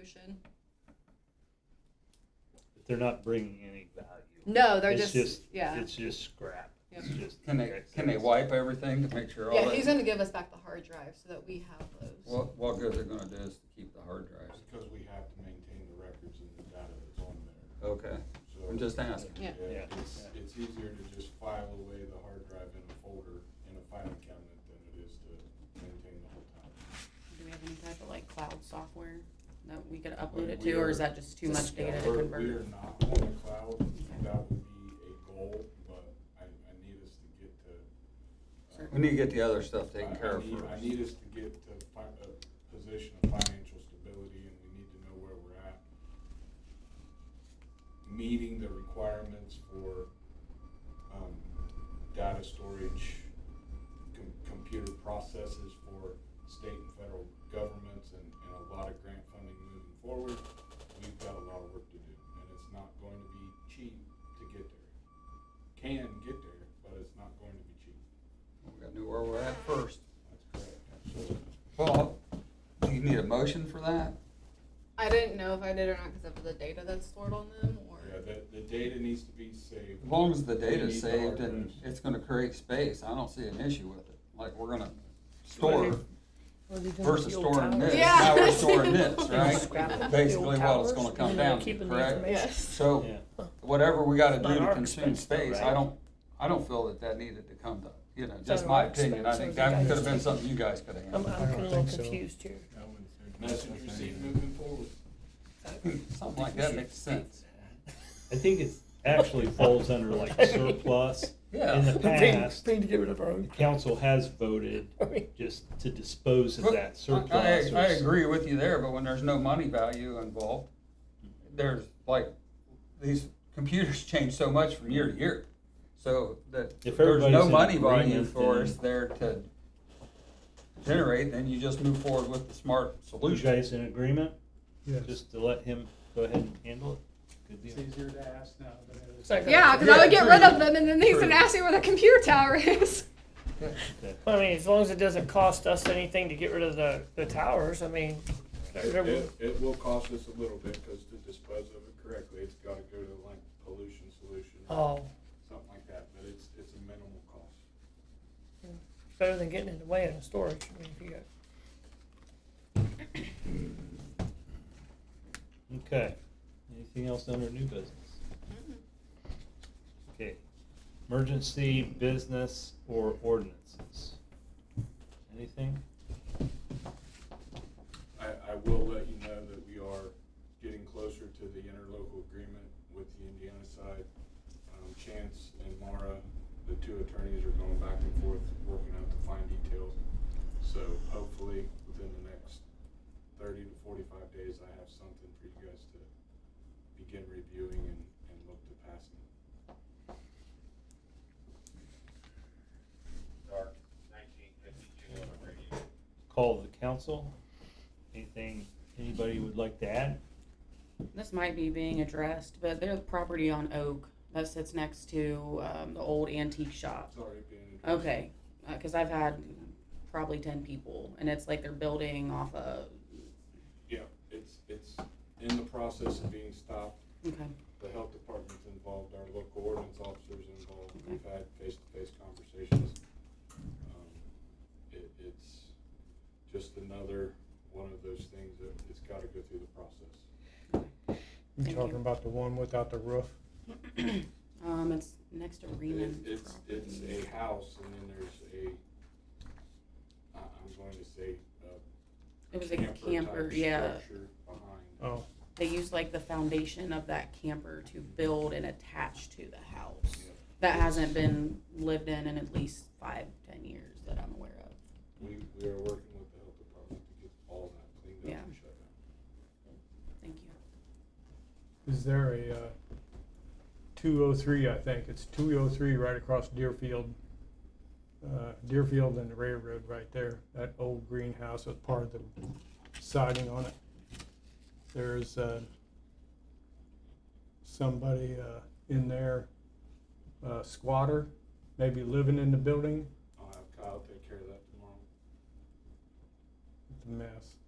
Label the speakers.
Speaker 1: solution.
Speaker 2: But They're not bringing any value.
Speaker 1: No, they're
Speaker 2: It's
Speaker 1: just, yeah.
Speaker 2: It's just scrap. It's just-
Speaker 3: Can they, can they wipe everything to make sure all
Speaker 1: Yeah, he's
Speaker 3: that?
Speaker 1: gonna give us back the hard drive so that we have those.
Speaker 3: What, what good they're gonna do is to keep the hard drives.
Speaker 4: Because we have to maintain the records and the data that's on there.
Speaker 3: Okay,
Speaker 4: So,
Speaker 3: I'm just asking.
Speaker 1: Yeah.
Speaker 2: Yeah.
Speaker 4: It's, it's easier to just file away the hard drive in a folder in a filing cabinet than it is to maintain the whole time.
Speaker 5: Do we have any type of like cloud software that we could upload
Speaker 4: Like,
Speaker 5: it
Speaker 4: we
Speaker 5: to, or is
Speaker 4: are-
Speaker 5: that just too much to get it to
Speaker 4: We're- We
Speaker 5: convert?
Speaker 4: are not on the cloud, that would be a goal, but I, I need us to get to. uh,
Speaker 5: Certain-
Speaker 3: We need to get the other stuff
Speaker 4: I-
Speaker 3: taken
Speaker 4: I
Speaker 3: care of
Speaker 4: need-
Speaker 3: first.
Speaker 4: I need us to get to fi- a position of financial stability and we need to know where we're at. Meeting the requirements for, um, data storage, com- computer processes for state and federal governments and, and a lot of grant funding moving forward. We've got a lot of work to do and it's not going to be cheap to get there. Can get there, but it's not going to be cheap.
Speaker 3: We gotta know where we're at first.
Speaker 4: That's correct, absolutely.
Speaker 3: Well, do you need a motion for that?
Speaker 1: I didn't know if I did or not because of the data that's stored on them or.
Speaker 4: Yeah, the, the data needs to be saved.
Speaker 3: As long as the
Speaker 4: We
Speaker 3: data's
Speaker 4: need the
Speaker 3: saved
Speaker 4: hard
Speaker 3: and
Speaker 4: drives.
Speaker 3: it's gonna create space, I don't see an issue with it. Like, we're gonna store versus storing this.
Speaker 1: Yeah.
Speaker 3: Now we're storing this,
Speaker 6: Scrap it.
Speaker 3: right? Basically
Speaker 6: The old
Speaker 3: what it's
Speaker 6: towers,
Speaker 3: gonna
Speaker 6: and
Speaker 3: come
Speaker 6: then
Speaker 3: down to,
Speaker 6: keeping the
Speaker 3: correct?
Speaker 6: information.
Speaker 1: Yes.
Speaker 3: So
Speaker 2: Yeah.
Speaker 3: whatever we gotta do
Speaker 6: Not
Speaker 3: to
Speaker 6: our
Speaker 3: consume
Speaker 6: expense, though,
Speaker 3: space, I
Speaker 6: right?
Speaker 3: don't, I don't feel that that needed to come to, you know, just
Speaker 6: our
Speaker 3: my opinion. I
Speaker 6: expense,
Speaker 3: think
Speaker 6: so you
Speaker 3: that
Speaker 6: guys Um,
Speaker 3: could have been
Speaker 6: take-
Speaker 3: something you guys could have
Speaker 6: I'm,
Speaker 3: handled.
Speaker 6: I'm a little confused here.
Speaker 4: Message received moving forward.
Speaker 3: Something like that makes sense.
Speaker 2: I think it actually falls under like surplus. In
Speaker 3: Yeah.
Speaker 2: the past,
Speaker 6: Thing to get rid of our
Speaker 2: the
Speaker 6: own.
Speaker 2: council has voted just to dispose of that surplus.
Speaker 3: I,
Speaker 2: or
Speaker 3: I agree with you there, but when there's no money value involved, there's like, these computers change so much from year to year. So that
Speaker 2: If
Speaker 3: there's no
Speaker 2: everybody's in
Speaker 3: money value
Speaker 2: agreement,
Speaker 3: for
Speaker 2: then-
Speaker 3: us there to generate, then you just move forward with the smart
Speaker 2: You
Speaker 3: solution.
Speaker 2: guys in agreement? Just to let him go ahead and handle it? Good
Speaker 7: It's
Speaker 2: deal.
Speaker 7: easier to ask now than it is.
Speaker 6: Second.
Speaker 1: Yeah, because I would get rid of them and then he's gonna
Speaker 3: True.
Speaker 1: ask me where the computer tower is.
Speaker 6: I mean, as long as it doesn't cost us anything to get rid of the, the towers, I mean,
Speaker 4: It, it- it will cost us a little bit, cause to dispose of it correctly, it's gotta go to like pollution solution, or
Speaker 6: oh,
Speaker 4: something like that, but it's, it's a minimal cost.
Speaker 6: better than getting it away in a storage. I mean, if you got
Speaker 2: Okay. Anything else under new business? Okay. Emergency business or ordinances? Anything?
Speaker 4: I, I will let you know that we are getting closer to the interlocal agreement with the Indiana side. Um, Chance and Mara, the two attorneys are going back and forth, working out the fine details. So hopefully, within the next thirty to forty-five days, I have something for you guys to begin reviewing and, and look to passing.
Speaker 8: dark nineteen fifty-two on a radio.
Speaker 2: Call of the council? Anything anybody would like to add?
Speaker 5: This might be being addressed, but there's property on Oak that sits next to, um, the old antique shop.
Speaker 4: It's already been. addressed.
Speaker 5: Okay, Uh cause I've had probably ten people and it's like they're building off of,
Speaker 4: Yeah, it's, it's in the process of being stopped.
Speaker 5: okay.
Speaker 4: the health department's involved, our local ordinance officers involved, we've had face-to-face conversations. Um, It, it's just another one of those things that it's gotta go through the process.
Speaker 5: Thank you.
Speaker 9: You talking about the one without the roof?
Speaker 5: Um, it's next to Reman.
Speaker 4: It- It's, it's a house and then there's a, I, I'm going to say, uh.
Speaker 5: It was a camper,
Speaker 4: type
Speaker 5: yeah.
Speaker 4: Structure behind.
Speaker 9: Oh,
Speaker 5: They used like the foundation of that camper to build and attach to the house. That hasn't been lived in in at least five, ten years that I'm aware of.
Speaker 4: We, we are working with the health department to get all that cleaned up and shut down.
Speaker 5: Thank you.
Speaker 9: is there a, uh, two oh three, I think, it's two oh three right across Deerfield. Uh, Deerfield and the railroad right there, that old greenhouse with part of the siding on it. There's, uh, somebody, uh, in there, uh, squatter, maybe living in the building,
Speaker 4: I'll have Kyle take care of that tomorrow.
Speaker 9: it's a mess.